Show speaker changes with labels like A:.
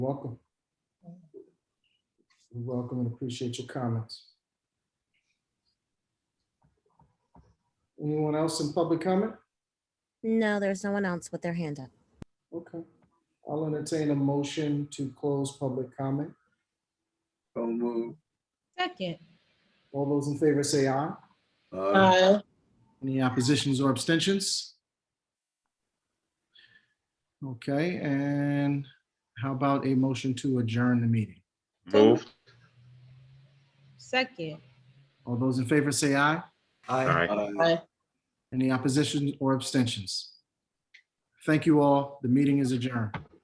A: Welcome. We Welcome and appreciate your comments. Anyone else in public comment?
B: No, there's no one else with their hand up.
A: Okay. I'll entertain a motion to close public comment.
C: So move.
D: Second.
A: All those in favor say aye.
C: Aye.
A: Any oppositions or abstentions? Okay, and how about a motion to adjourn the meeting?
E: Moved.
D: Second.
A: All those in favor say aye.
E: Aye.
C: Aye.
A: Any opposition or abstentions? Thank you all. The meeting is adjourned.